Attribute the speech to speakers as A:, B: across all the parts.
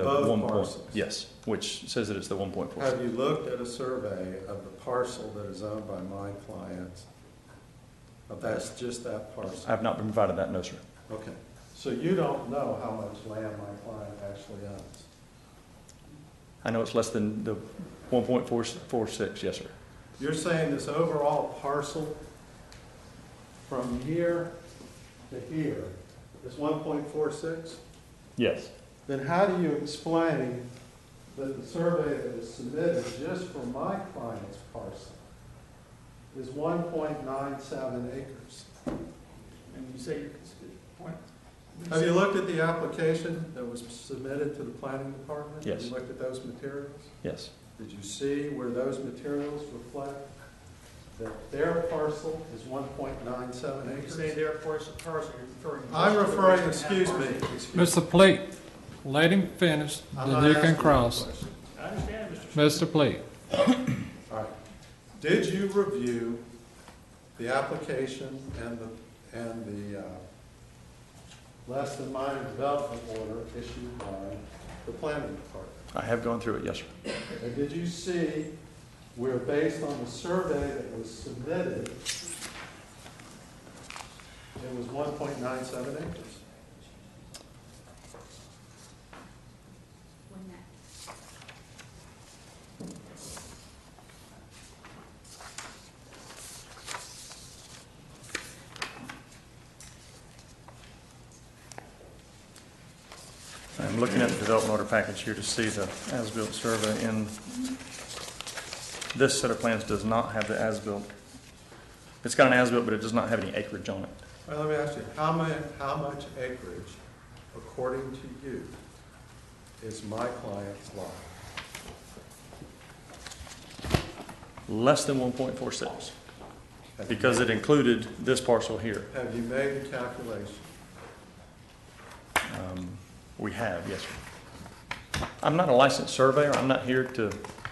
A: Above
B: one point,
A: parcels.
B: yes, which says that it's the one point four.
A: Have you looked at a survey of the parcel that is owned by my clients? Of that's just that
B: I
A: parcel?
B: have not been provided that, no, sir.
A: Okay, so you don't know how much land my client actually owns?
B: I know it's less than the one point four, four six, yes, sir.
A: You're saying this overall parcel from here to here is one point four six?
B: Yes.
A: Then how do you explain that the survey that was submitted just for my client's parcel is one point nine seven acres?
C: And you say your cons- point.
A: Have you looked at the application that was submitted to the planning department? Have
B: Yes.
A: you looked at those materials?
B: Yes,
A: Did you see where those materials reflect that their parcel is one point nine seven
C: When you
A: acres?
C: say their parcel, parcel, you're referring.
A: I'm referring, excuse me, excuse me.
D: Mr. Pleat, let him finish,
A: I'm
D: then
A: not
D: you
A: asking
D: can
A: you a
D: cross.
A: question.
C: I understand, Mr.
D: Mr. Pleat,
A: All right. Did you review the application and the, and the, uh, less than minor development order issued by the planning department?
B: I have gone through it, yes, sir.
A: And did you see where based on the survey that was submitted, it was one point nine seven acres?
B: I'm looking at the development order package here to see the as-built survey, and this set of plans does not have the as-built. It's got an as-built, but it does not have any acreage on it.
A: All right, let me ask you, how mu, how much acreage, according to you, is my client's lot?
B: Less than one point four six, because it included this parcel here.
A: Have you made the calculation?
B: Um, We have, yes, sir. I'm not a licensed surveyor, I'm not here to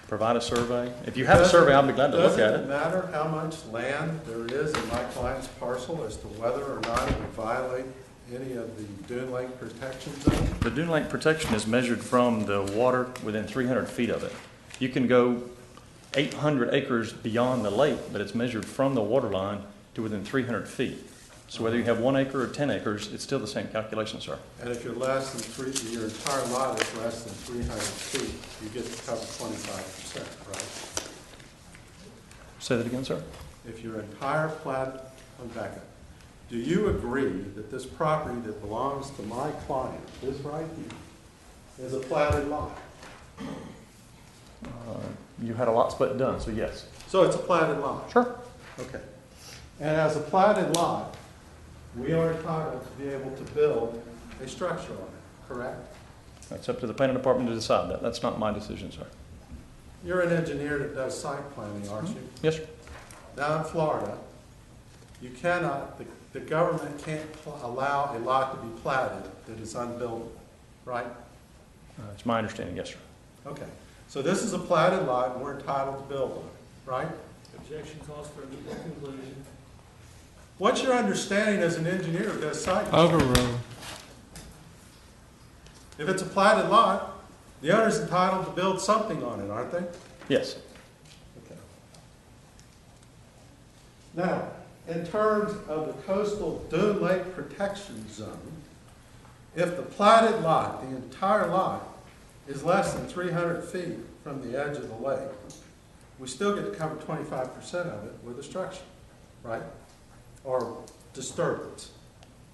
B: provide a survey. If you have a survey, I'll be glad to look at
A: Doesn't it
B: it.
A: matter how much land there is in my client's parcel as to whether or not it would violate any of the Dune Lake Protection Zone?
B: The dune lake protection is measured from the water within three hundred feet of it. You can go eight hundred acres beyond the lake, but it's measured from the water line to within three hundred feet. So whether you have one acre or ten acres, it's still the same calculation, sir.
A: And if you're less than three, your entire lot is less than three hundred feet, you get to cover twenty-five percent, right?
B: Say that again, sir?
A: If your entire plat, I'm back up. Do you agree that this property that belongs to my client, this right here, is a platted lot?
B: Uh, You had a lot split done, so yes.
A: So it's a platted lot?
B: Sure.
A: Okay. And as a platted lot, we are entitled to be able to build a structure on it, correct?
B: That's up to the planning department to decide that, that's not my decision, sir.
A: You're an engineer that does site planning, aren't you?
B: Yes, sir?
A: Down in Florida, you cannot, the, the government can't pl- allow a lot to be platted that is unbuildable, right?
B: Uh, It's my understanding, yes, sir.
A: Okay, so this is a platted lot, and we're entitled to build on it, right?
C: Objection calls for a legal conclusion.
A: What's your understanding as an engineer of this site?
D: Uh, overruled.
A: If it's a platted lot, the owner's entitled to build something on it, aren't they?
B: Yes.
A: Okay. Now, in terms of the coastal dune lake protection zone, if the platted lot, the entire lot, is less than three hundred feet from the edge of the lake, we still get to cover twenty-five percent of it with a structure, right? Or disturbance.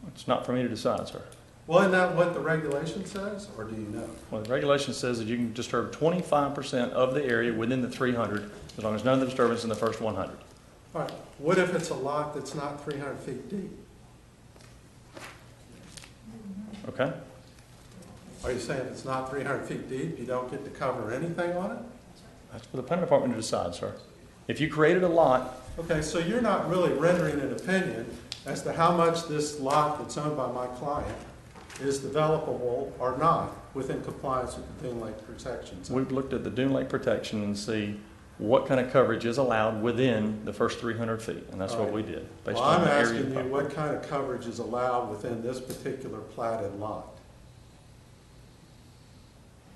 B: It's not for me to decide, sir.
A: Well, isn't that what the regulation says, or do you know?
B: Well, the regulation says that you can disturb twenty-five percent of the area within the three hundred, as long as none of the disturbance is in the first one hundred.
A: All right, what if it's a lot that's not three hundred feet deep?
B: Okay?
A: Are you saying if it's not three hundred feet deep, you don't get to cover anything on it?
B: That's for the planning department to decide, sir. If you created a lot,
A: Okay, so you're not really rendering an opinion as to how much this lot that's owned by my client is developable or not within compliance with the Dune Lake protections.
B: we've looked at the dune lake protection and see what kind of coverage is allowed within the first three hundred feet, and that's what we did. based
A: Well,
B: on
A: I'm
B: the area of
A: asking you
B: property.
A: what kind of coverage is allowed within this particular platted lot?